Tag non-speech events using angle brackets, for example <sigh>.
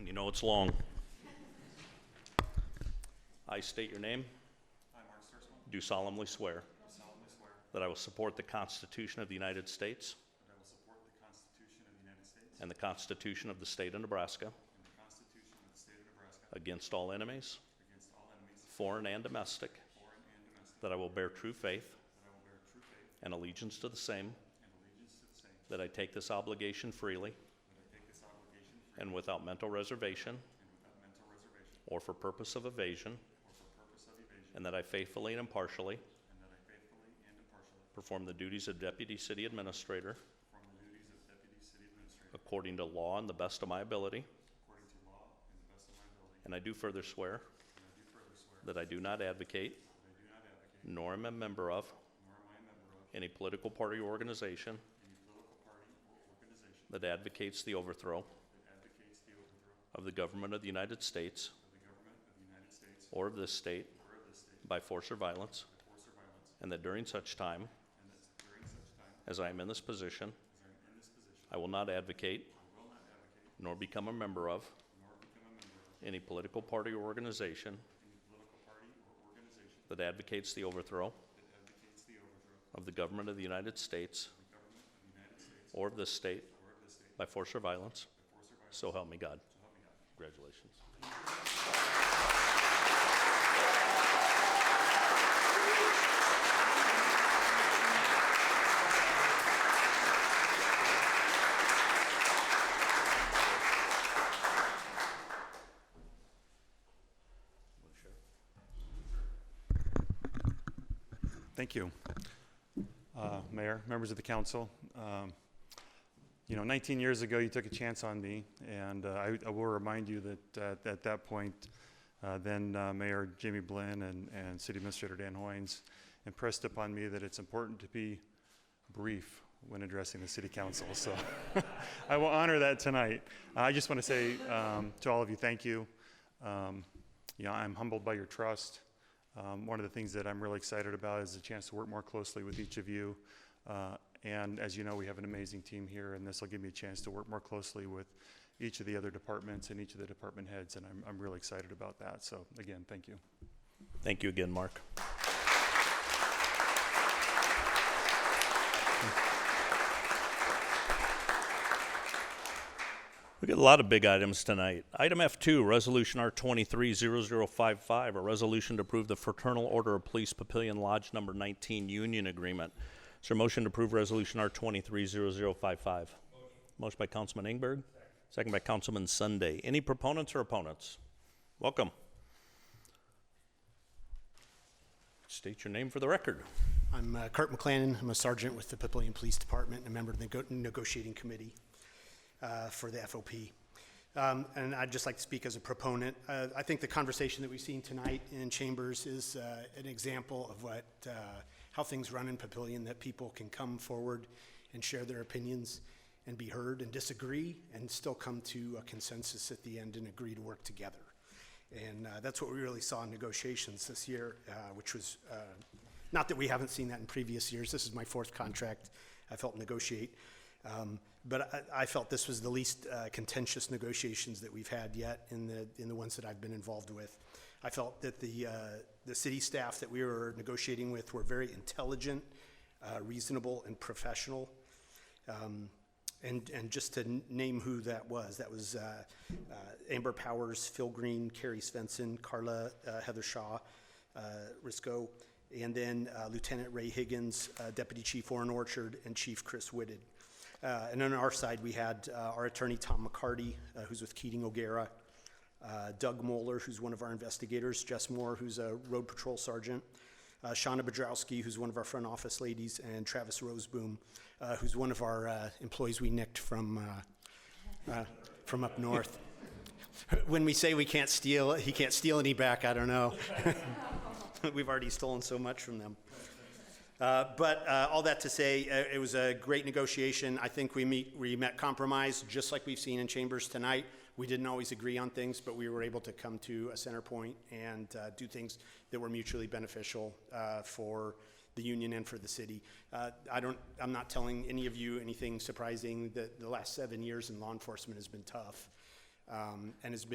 You know it's long. I state your name. I, Mark Stursman, Do solemnly swear do solemnly swear that I will support the Constitution of the United States that I will support the Constitution of the United States and the Constitution of the State of Nebraska and the Constitution of the State of Nebraska against all enemies, against all enemies, foreign and domestic, foreign and domestic, that I will bear true faith that I will bear true faith and allegiance to the same, and allegiance to the same, that I take this obligation freely that I take this obligation free and without mental reservation and without mental reservation or for purpose of evasion, or for purpose of evasion, and that I faithfully and impartially and that I faithfully and impartially perform the duties of Deputy City Administrator perform the duties of Deputy City Administrator according to law and the best of my ability. according to law and the best of my ability. And I do further swear And I do further swear that I do not advocate, that I do not advocate, nor am a member of, nor am I a member of, any political party or organization any political party or organization that advocates the overthrow that advocates the overthrow of the government of the United States of the government of the United States or of this state or of this state by force or violence, by force or violence, and that during such time and that during such time as I am in this position, as I am in this position, I will not advocate I will not advocate nor become a member of nor become a member of any political party or organization any political party or organization that advocates the overthrow that advocates the overthrow of of the government of the United States the government of the United States or of this state or of this state by force or violence. by force or violence, So help me God. so help me God. Congratulations. Thank you. Uh, Mayor, members of the council, um, you know, 19 years ago, you took a chance on me, and uh, I I will remind you that uh, at that point, uh, then uh, Mayor Jamie Blinn and and City Administrator Dan Hoynes impressed upon me that it's important to be brief when addressing the city council, so <laughs> I will honor that tonight. I just want to say um, to all of you, thank you. Um, You know, I'm humbled by your trust. Um, One of the things that I'm really excited about is the chance to work more closely with each of you. Uh, And as you know, we have an amazing team here, and this will give me a chance to work more closely with each of the other departments and each of the department heads, and I'm, I'm really excited about that. So again, thank you. Thank you again, Mark. We got a lot of big items tonight. Item F2, Resolution R230055, a resolution to approve the Fraternal Order of Police Papillion Lodge Number 19 Union Agreement. Is there a motion to approve Resolution R230055? Motion by Councilman Ingberg, second by Councilman Sunday. Any proponents or opponents? Welcome. State your name for the record. I'm uh, Kurt McLennan. I'm a sergeant with the Papillion Police Department and a member of the go- negotiating committee uh, for the FOP. Um, And I'd just like to speak as a proponent. Uh, I think the conversation that we've seen tonight in chambers is uh, an example of what, uh, how things run in Papillion, that people can come forward and share their opinions and be heard and disagree and still come to a consensus at the end and agree to work together. And uh, that's what we really saw in negotiations this year, uh, which was, uh, not that we haven't seen that in previous years. This is my fourth contract I've helped negotiate. Um, But I, I felt this was the least uh, contentious negotiations that we've had yet in the, in the ones that I've been involved with. I felt that the, uh, the city staff that we were negotiating with were very intelligent, uh, reasonable, and professional. um, And, and just to n- name who that was, that was uh, uh, Amber Powers, Phil Green, Carrie Svensson, Carla uh, Heather Shaw, uh, Risco, and then uh, Lieutenant Ray Higgins, uh, Deputy Chief Warren Orchard, and Chief Chris Whitted. Uh, And on our side, we had uh, our attorney, Tom McCarty, uh, who's with Keating O'Gara, uh, Doug Moeller, who's one of our investigators, Jess Moore, who's a road patrol sergeant, uh, Shauna Bedrowski, who's one of our front office ladies, and Travis Roseboom, uh, who's one of our uh, employees we nicked from, uh, uh, from up north. <laughs> When we say we can't steal, he can't steal any back, I don't know. <laughs> We've already stolen so much from them. Uh, But uh, all that to say, uh, it was a great negotiation. I think we meet, we met compromise, just like we've seen in chambers tonight. We didn't always agree on things, but we were able to come to a center point and uh, do things that were mutually beneficial uh, for the union and for the city. Uh, I don't, I'm not telling any of you anything surprising. The, the last seven years in law enforcement has been tough. Uh, um, and has been